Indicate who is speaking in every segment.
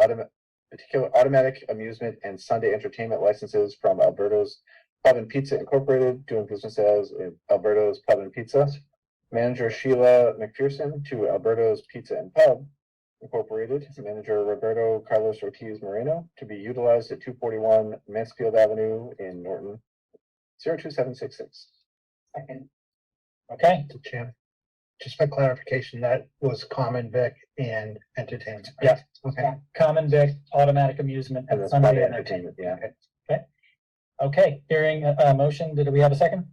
Speaker 1: autom- particular automatic amusement and Sunday entertainment licenses from Alberto's Pub and Pizza Incorporated, doing business as uh, Alberto's Pub and Pizza. Manager Sheila McPherson to Alberto's Pizza and Pub Incorporated, manager Roberto Carlos Ortiz Moreno to be utilized at two forty-one Mansfield Avenue in Norton, zero two seven six six.
Speaker 2: Second.
Speaker 3: Okay,
Speaker 4: to Jim. Just for clarification, that was common vic and entertainment. right?
Speaker 3: Yeah.
Speaker 4: Okay,
Speaker 3: common vic, automatic amusement,
Speaker 1: And that's
Speaker 3: Sunday
Speaker 1: Sunday
Speaker 3: entertainment.
Speaker 1: entertainment, yeah.
Speaker 3: Okay, hearing a, a motion, did we have a second?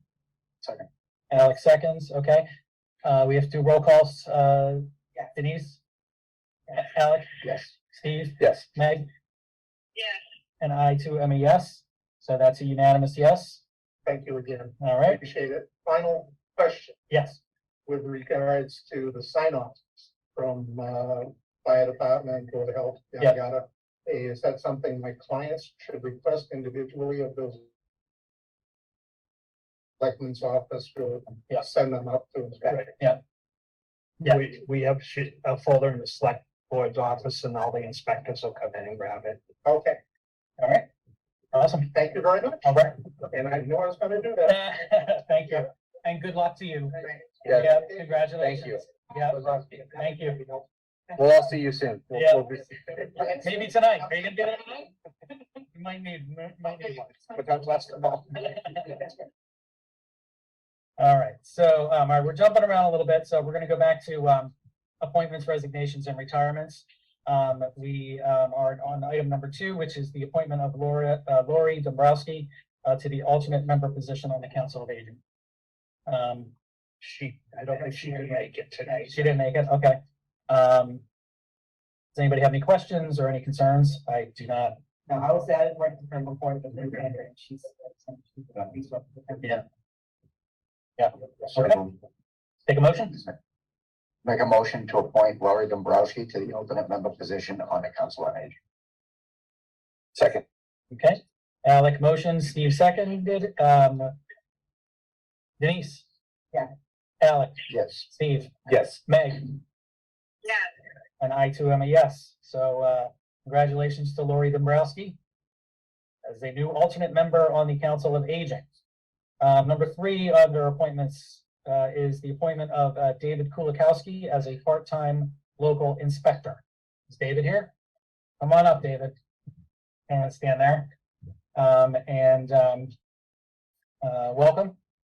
Speaker 4: Second.
Speaker 3: Alex seconds, okay. Uh, we have to do roll calls, uh,
Speaker 2: Yeah.
Speaker 3: Denise? A- Alec,
Speaker 1: Yes.
Speaker 3: Steve,
Speaker 1: Yes.
Speaker 3: Meg,
Speaker 2: Yes.
Speaker 3: and I too am a yes, so that's a unanimous yes,
Speaker 4: thank you again.
Speaker 3: all
Speaker 4: I
Speaker 3: right,
Speaker 4: Appreciate it. Final question
Speaker 3: yes.
Speaker 4: with regards to the sign offs from uh fire department, board of health,
Speaker 3: Yeah.
Speaker 4: yada yada. Is that something my clients should request individually of those? Selectmen's office will
Speaker 3: Yeah.
Speaker 4: send them up to inspect.
Speaker 3: Yeah.
Speaker 5: We, we have shit- a folder in the select board's office and all the inspectors will come in and grab it.
Speaker 4: Okay,
Speaker 3: All right, awesome,
Speaker 4: thank you very much.
Speaker 3: all right,
Speaker 4: And I knew I was gonna do that.
Speaker 3: thank you, and good luck to you.
Speaker 1: Yeah.
Speaker 3: Yeah, congratulations. Yeah, thank you.
Speaker 1: We'll all see you soon. We'll-
Speaker 3: Yeah.
Speaker 1: we'll be-
Speaker 3: Maybe tonight, are you gonna do it tonight? You might need, might need one.
Speaker 1: But that's less than all.
Speaker 3: All right, so, um, all right, we're jumping around a little bit, so we're gonna go back to, um, appointments, resignations, and retirements. Um, we, um, are on item number two, which is the appointment of Laura, uh, Lori Dombrowski, uh, to the alternate member position on the Council of Aging. Um,
Speaker 5: She, I don't think she could make it tonight.
Speaker 3: she didn't make it, okay. Um, does anybody have any questions or any concerns? I do not.
Speaker 2: No, I was at work with her before the pandemic, and she's.
Speaker 3: Yeah. Okay,
Speaker 2: Okay.
Speaker 3: take a motion?
Speaker 2: Make a motion to appoint Laurie Dombrowski to the alternate member position on the council on aging.
Speaker 1: Second.
Speaker 3: Okay, Alec motion, Steve seconded, um. Denise?
Speaker 2: Yeah.
Speaker 3: Alec,
Speaker 2: Yes.
Speaker 3: Steve,
Speaker 1: Yes.
Speaker 3: Meg,
Speaker 2: Yeah.
Speaker 3: and I too am a yes, so, uh, congratulations to Lori Dombrowski. As a new alternate member on the Council of Aging. Um, number three under appointments, uh, is the appointment of, uh, David Kulikowski as a part-time local inspector. Is David here? Come on up, David. And stand there. Um, and, um, uh, welcome.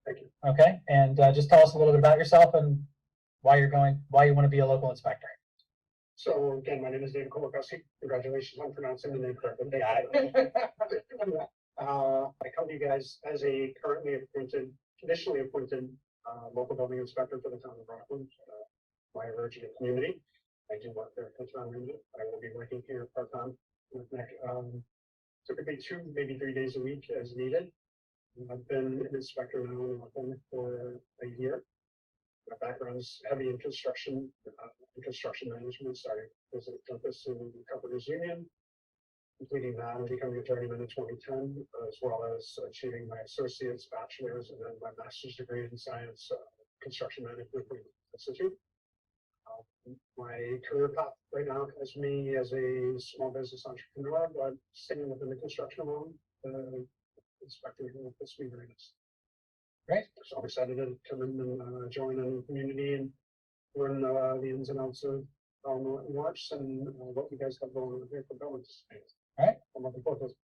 Speaker 4: Thank you.
Speaker 3: Okay, and, uh, just tell us a little bit about yourself and why you're going, why you want to be a local inspector.
Speaker 4: So again, my name is David Kolakowski. Congratulations on pronouncing the name correctly. Uh, I come to you guys as a currently appointed, conditionally appointed, uh, local building inspector for the town of Rockland, uh, my original community. I do work there for town manager. I will be working here part-time with Nick, um, typically two, maybe three days a week as needed. And I've been an inspector now in Rockland for a year. My background's heavy in construction, uh, and construction management, starting as an apprentice in the Carpenters Union. Completing that and becoming a journeyman in twenty ten, as well as achieving my associate's bachelor's and then my master's degree in science, uh, construction management from institute. Um, My career path right now has me as a small business entrepreneur, but staying within the construction realm, uh, inspecting with this week.
Speaker 3: Great.
Speaker 4: So I'm excited to come in and, uh, join a new community and learn, uh, the ins and outs of um, watch and uh, what you guys have going on here for buildings.
Speaker 3: Alright.
Speaker 4: I'm looking forward to it.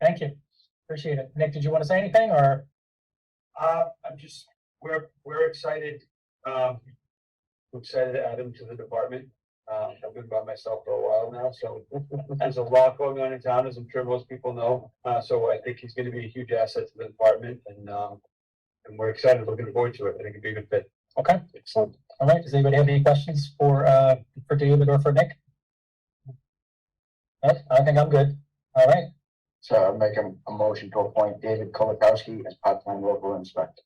Speaker 3: Thank you. Appreciate it. Nick, did you want to say anything or?
Speaker 5: Uh, I'm just, we're, we're excited, um, we're excited to add him to the department. Um, I've been by myself for a while now, so there's a lot going on in town, as I'm sure most people know. Uh, so I think he's gonna be a huge asset to the department and, um, and we're excited, looking forward to it. I think it'd be a good fit.
Speaker 3: Okay,
Speaker 1: Excellent.
Speaker 3: all right. Does anybody have any questions for, uh, for David or for Nick? No, I think I'm good. All right,
Speaker 2: So I'll make a, a motion to appoint David Kolakowski as part-time local inspector.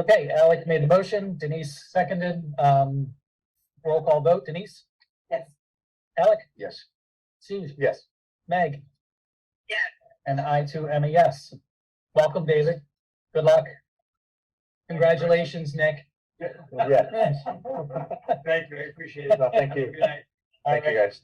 Speaker 3: okay. Alec made the motion, Denise seconded, um, roll call vote. Denise?
Speaker 2: Yes.
Speaker 3: Alec,
Speaker 2: Yes.
Speaker 3: Steve,
Speaker 1: Yes.
Speaker 3: Meg?
Speaker 2: Yeah.
Speaker 3: And I too am a yes. Welcome, David. Good luck. Congratulations, Nick.
Speaker 1: Yeah.
Speaker 5: Thank you, I appreciate it.
Speaker 1: Thank you.
Speaker 5: Good night.
Speaker 6: I
Speaker 1: Thank you, guys.